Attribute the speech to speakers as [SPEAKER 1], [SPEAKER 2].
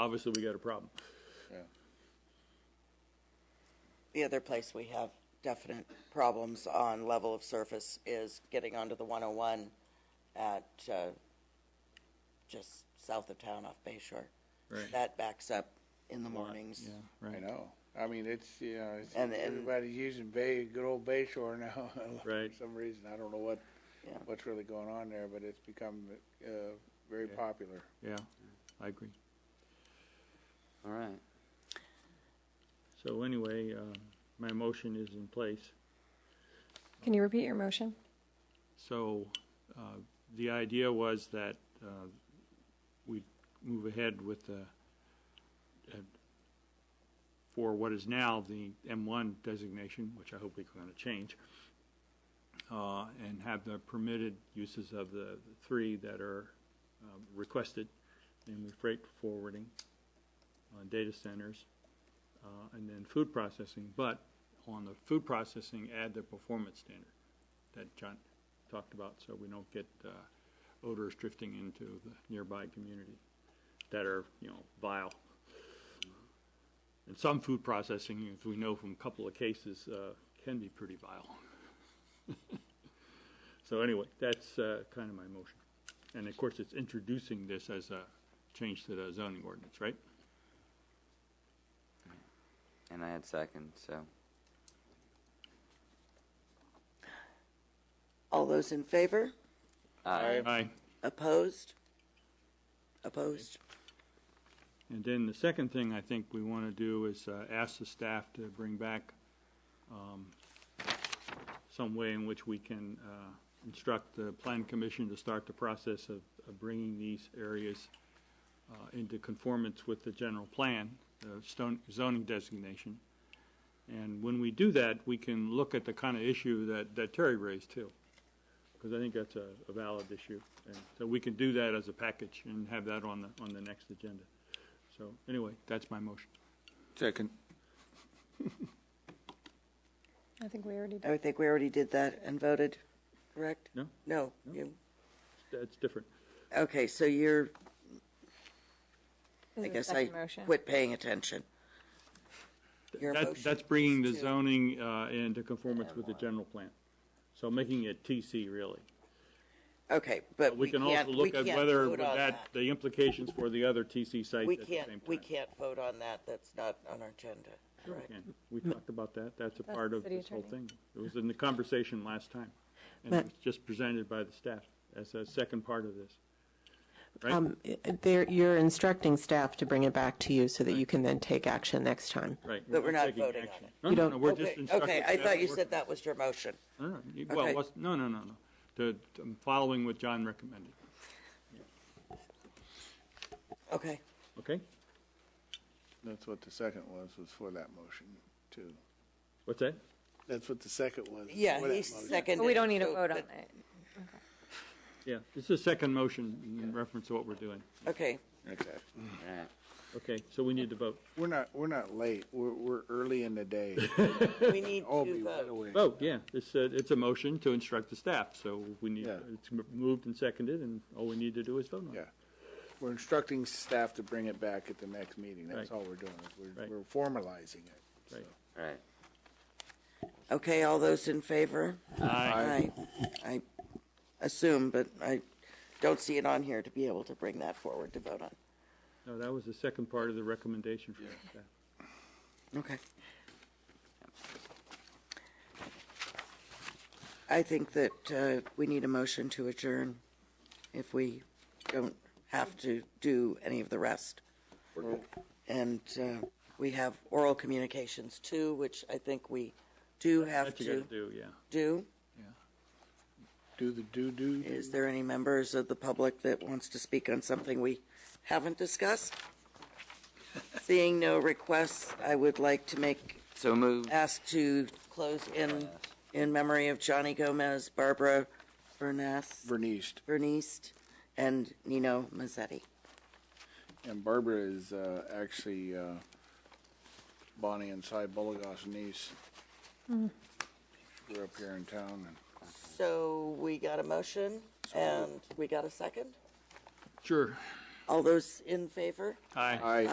[SPEAKER 1] obviously we got a problem.
[SPEAKER 2] The other place we have definite problems on level of surface is getting onto the 101 at uh, just south of town off Bay Shore.
[SPEAKER 1] Right.
[SPEAKER 2] That backs up in the mornings.
[SPEAKER 1] Right.
[SPEAKER 3] I know. I mean, it's, you know, it's,
[SPEAKER 2] And- and-
[SPEAKER 3] everybody's using Bay, good old Bay Shore now.
[SPEAKER 1] Right.
[SPEAKER 3] For some reason, I don't know what,
[SPEAKER 2] Yeah.
[SPEAKER 3] what's really going on there, but it's become, uh, very popular.
[SPEAKER 1] Yeah, I agree.
[SPEAKER 4] All right.
[SPEAKER 1] So anyway, uh, my motion is in place.
[SPEAKER 5] Can you repeat your motion?
[SPEAKER 1] So uh, the idea was that uh, we move ahead with the, uh, for what is now the M1 designation, which I hope we're going to change, uh, and have the permitted uses of the three that are um, requested, namely freight forwarding, uh, data centers, uh, and then food processing. But on the food processing, add the performance standard that John talked about, so we don't get uh, odors drifting into the nearby community that are, you know, vile. And some food processing, as we know from a couple of cases, uh, can be pretty vile. So anyway, that's uh, kind of my motion. And of course, it's introducing this as a change to the zoning ordinance, right?
[SPEAKER 4] And I had second, so
[SPEAKER 2] All those in favor?
[SPEAKER 4] aye.
[SPEAKER 1] Aye.
[SPEAKER 2] Opposed? Opposed?
[SPEAKER 1] And then the second thing I think we want to do is uh, ask the staff to bring back um, some way in which we can uh, instruct the plan commission to start the process of of bringing these areas uh, into conformance with the general plan, the stone- zoning designation. And when we do that, we can look at the kind of issue that that Terry raised too, because I think that's a a valid issue. And so we can do that as a package and have that on the on the next agenda. So anyway, that's my motion.
[SPEAKER 3] Second.
[SPEAKER 5] I think we already did.
[SPEAKER 2] I think we already did that and voted, correct?
[SPEAKER 1] No.
[SPEAKER 2] No, you,
[SPEAKER 1] That's different.
[SPEAKER 2] okay, so you're,
[SPEAKER 5] This
[SPEAKER 2] I
[SPEAKER 5] is
[SPEAKER 2] guess I
[SPEAKER 5] second motion.
[SPEAKER 2] quit paying attention. Your
[SPEAKER 1] That-
[SPEAKER 2] motion
[SPEAKER 1] That's bringing the
[SPEAKER 2] is to-
[SPEAKER 1] zoning uh, into conformance with the general plan. So making it TC really.
[SPEAKER 2] Okay, but
[SPEAKER 1] But we can
[SPEAKER 2] can't-
[SPEAKER 1] also
[SPEAKER 2] we
[SPEAKER 1] look at
[SPEAKER 2] can't
[SPEAKER 1] whether
[SPEAKER 2] vote on
[SPEAKER 1] that, the implications for the other TC sites
[SPEAKER 2] We
[SPEAKER 1] at the same time.
[SPEAKER 2] can't, we can't vote on that, that's not on our agenda, correct?
[SPEAKER 1] Can. We talked about that. That's a
[SPEAKER 5] That's
[SPEAKER 1] part
[SPEAKER 5] the
[SPEAKER 1] of
[SPEAKER 5] city
[SPEAKER 1] this whole
[SPEAKER 5] attorney.
[SPEAKER 1] thing. It was in the conversation last time. And it was just presented by the staff as a second part of this. Right?
[SPEAKER 6] Um, there, you're instructing staff to bring it back to you so that you can then take action next time.
[SPEAKER 1] Right.
[SPEAKER 2] but we're not
[SPEAKER 1] taking
[SPEAKER 2] voting on
[SPEAKER 1] action.
[SPEAKER 2] it.
[SPEAKER 1] No,
[SPEAKER 6] You
[SPEAKER 1] no,
[SPEAKER 6] don't-
[SPEAKER 1] no, we're just
[SPEAKER 2] Okay,
[SPEAKER 1] instructing.
[SPEAKER 2] okay, I
[SPEAKER 1] staff
[SPEAKER 2] thought
[SPEAKER 1] to
[SPEAKER 2] you
[SPEAKER 1] work-
[SPEAKER 2] said that was your motion.
[SPEAKER 1] No, no, you- well,
[SPEAKER 2] Okay.
[SPEAKER 1] it was- no, no, no, no. The, I'm following what John recommended.
[SPEAKER 2] Okay,
[SPEAKER 1] Okay?
[SPEAKER 3] That's what the second was, was for that motion too.
[SPEAKER 1] What's that?
[SPEAKER 3] That's what the second was. was
[SPEAKER 2] yeah,
[SPEAKER 3] for that
[SPEAKER 2] he
[SPEAKER 3] motion.
[SPEAKER 2] seconded.
[SPEAKER 5] But we don't need to
[SPEAKER 2] so-
[SPEAKER 5] vote on
[SPEAKER 2] but-
[SPEAKER 5] it.
[SPEAKER 1] Yeah, this is a second motion in reference to what we're doing.
[SPEAKER 2] Okay,
[SPEAKER 3] Okay.
[SPEAKER 4] All right.
[SPEAKER 1] Okay, so we need to vote.
[SPEAKER 3] We're not, we're not late. We're, we're early in the day.
[SPEAKER 2] we need
[SPEAKER 3] I'll
[SPEAKER 2] to
[SPEAKER 3] be right
[SPEAKER 2] vote.
[SPEAKER 3] away.
[SPEAKER 1] Vote, Oh, yeah, it's a, it's a motion to instruct the staff, so we need,
[SPEAKER 3] Yeah.
[SPEAKER 1] it's m- moved and seconded, and all we need to do is vote on
[SPEAKER 3] Yeah.
[SPEAKER 1] it.
[SPEAKER 3] We're instructing staff to bring it back at the next meeting. That's
[SPEAKER 1] Right.
[SPEAKER 3] all we're doing. is We're,
[SPEAKER 1] Right.
[SPEAKER 3] we're formalizing it.
[SPEAKER 1] Right.
[SPEAKER 4] All right.
[SPEAKER 2] Okay, all those in favor?
[SPEAKER 1] Aye.
[SPEAKER 2] I, I assume, but I don't see it on here to be able to bring that forward to vote on.
[SPEAKER 1] No, that was the second part of the recommendation from the staff.
[SPEAKER 2] Okay. I think that uh, we need a motion to adjourn if we don't have to do any of the rest. And uh, we have oral communications too, which I think we do have
[SPEAKER 1] That you
[SPEAKER 2] to
[SPEAKER 1] gotta do, yeah.
[SPEAKER 2] do.
[SPEAKER 3] Do the do-do.
[SPEAKER 2] Is there any members of the public that wants to speak on something we haven't discussed? Seeing no requests, I would like to make
[SPEAKER 4] So moved.
[SPEAKER 2] asked to close in, in memory of Johnny Gomez, Barbara Bernas,
[SPEAKER 3] Vernice.
[SPEAKER 2] Bernice, and Nino Mazzetti.
[SPEAKER 3] And Barbara is uh, actually uh, Bonnie and Cy Bulligoff's niece. She grew up here in town. And
[SPEAKER 2] So we got a motion and we got a second.
[SPEAKER 1] Sure.
[SPEAKER 2] All those in favor?
[SPEAKER 1] Aye.
[SPEAKER 3] I